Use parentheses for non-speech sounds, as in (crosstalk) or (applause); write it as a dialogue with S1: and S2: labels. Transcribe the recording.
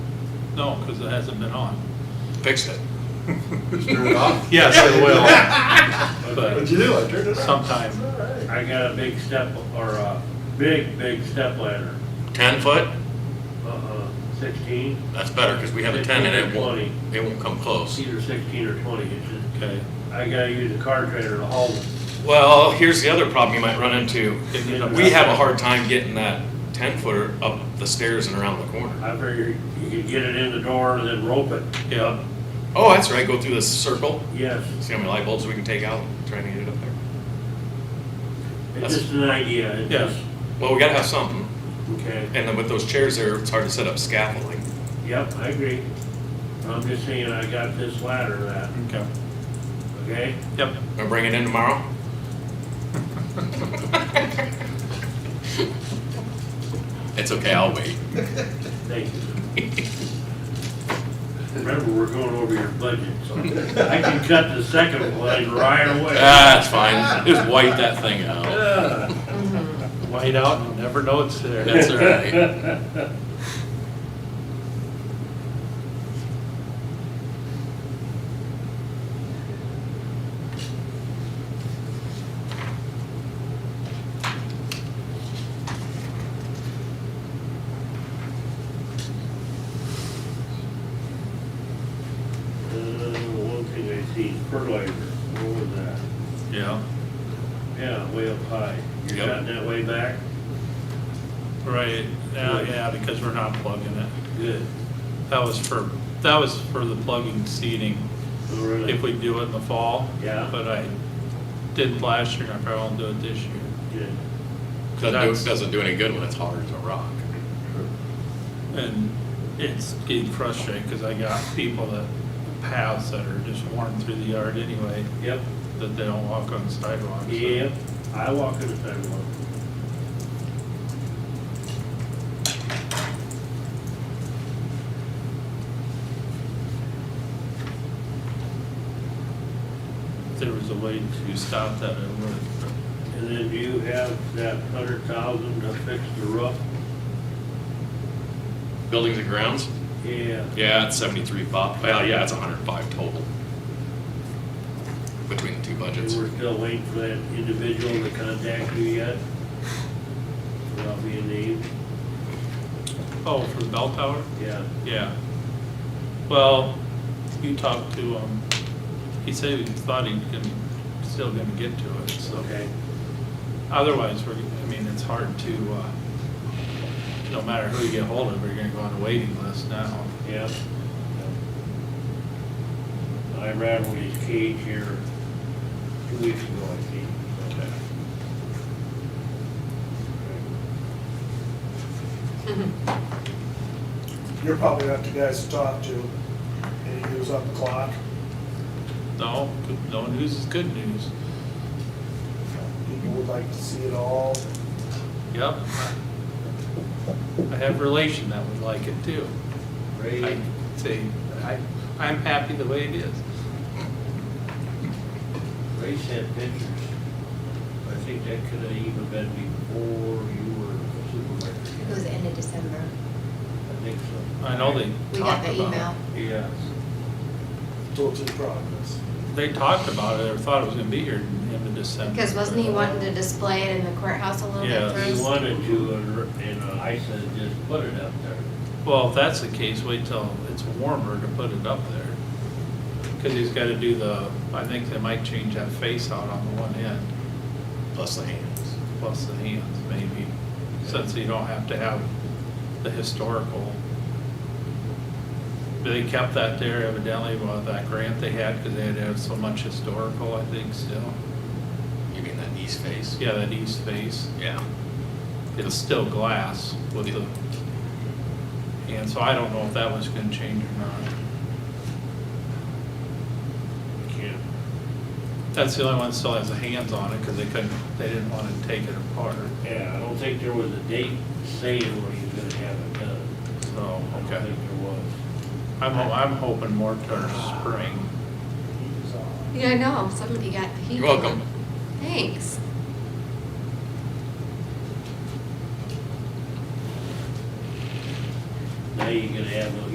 S1: No, because it hasn't been on.
S2: Fix
S3: (laughs)
S2: it.
S3: Just turn it off?
S1: Yes, it will,
S3: What'd
S1: but
S3: you do? I turned it off.
S1: sometime.
S4: I got a big step, or a big, big step ladder,
S2: Ten foot?
S4: uh, sixteen,
S2: That's better, because we have a ten and it won't, it won't come
S4: it's
S2: close.
S4: either sixteen or twenty inches.
S1: Okay,
S4: I gotta use a car trailer to haul it.
S2: Well, here's the other problem you might run into.
S1: Get it up.
S2: We have a hard time getting that ten footer up the stairs and around the corner.
S4: I figure you could get it in the door and then rope it.
S1: yeah,
S2: Oh, that's right, go through this circle.
S4: Yes,
S2: See how many light bulbs we can take out, trying to get it up there.
S4: it's just an idea, it's
S1: Yes.
S4: just,
S2: Well, we gotta have something,
S4: okay,
S2: and then with those chairs there, it's hard to set up scaffolding.
S4: yep, I agree. I'm just saying I got this ladder that,
S1: okay,
S4: okay?
S1: yep.
S2: Gonna bring it in
S3: (laughs)
S2: tomorrow? (laughs) It's okay, I'll wait.
S4: Thank you.
S2: (laughs)
S4: Remember, we're going over your budget, so I can cut the second one right away.
S2: Ah, it's fine, just wipe that thing out.
S4: Ugh.
S1: White out, and you never know it's there.
S2: That's all right.
S4: Uh, One thing I see, fertilizer, what was that?
S1: Yeah,
S4: Yeah, way up high. You're
S2: Yep.
S4: cutting that way back?
S1: right, now, yeah, because we're not plugging it.
S4: Good.
S1: That was for, that was for the plugging seating,
S4: Oh, really?
S1: if we do it in the fall.
S4: Yeah.
S1: But I didn't last year, and I probably won't do it this year.
S4: Good.
S2: Doesn't do, doesn't do any good when it's hard as a rock.
S1: And it's getting frustrating, because I got people that, paths that are just worn through the yard anyway,
S4: Yep,
S1: that they don't walk on sidewalks. so-
S4: yep. I walk in the sidewalk.
S1: If there was a way to stop that, I would.
S4: And then do you have that hundred thousand to fix the roof?
S2: Buildings and grounds?
S4: Yeah.
S2: Yeah, it's seventy-three five, well, yeah, it's hundred and five total. Between the two budgets.
S4: And we're still waiting for that individual to contact you yet? Without being named?
S1: Oh, for the bell tower?
S4: Yeah.
S1: Yeah. Well, you talked to, um, he said he thought he could, still gonna get to it, so.
S4: Okay.
S1: Otherwise, we're, I mean, it's hard to, uh, no matter who you get hold of, we're gonna go on a waiting list now.
S4: Yeah. I rattled his cage here two weeks ago, I think.
S1: Okay.
S5: You're probably not the guys to talk to, and he was on the clock.
S1: No, good- no news is good news.
S5: People would like to see it all.
S1: Yep. I have relation that would like it too. I
S4: Right.
S1: say, I, I'm happy the way it is.
S4: Ray sent pictures. I think that could have even been before you were
S6: It was
S4: supervisor.
S6: the end of December.
S4: I think so.
S1: I know they
S6: We got
S1: talked
S6: the
S1: about it.
S6: email.
S4: Yes.
S5: Total progress.
S1: They talked about it, or thought it was gonna be here in the end of December. uh,
S6: Because wasn't he wanting to display it in the courthouse a little
S1: Yeah.
S6: bit
S4: He
S6: first?
S4: wanted to, and- and uh, I said, just put it up there.
S1: Well, if that's the case, wait till it's warmer to put it up there. Cause he's gotta do the, I think they might change that face out on the one end,
S2: Plus the hands.
S1: plus the hands maybe, since you don't have to have the historical. But They kept that there evidently with that grant they had, cause they had to have so much historical, I think, still.
S2: You mean that east face?
S1: Yeah, that east face.
S2: Yeah.
S1: it's still glass with the, and so I don't know if that was gonna change or not.
S4: Can't
S1: That's the only one that still has the hands on it, because they couldn't, they didn't want to take it apart,
S4: Yeah, I don't think there was a date saying when he was gonna have it done.
S1: so,
S4: I don't
S1: okay.
S4: think there was.
S1: I'm, ho- I'm hoping more towards spring.
S5: He was on.
S6: Yeah, I know, somebody got the heat.
S2: You're welcome.
S6: Thanks.
S4: Now you're gonna have those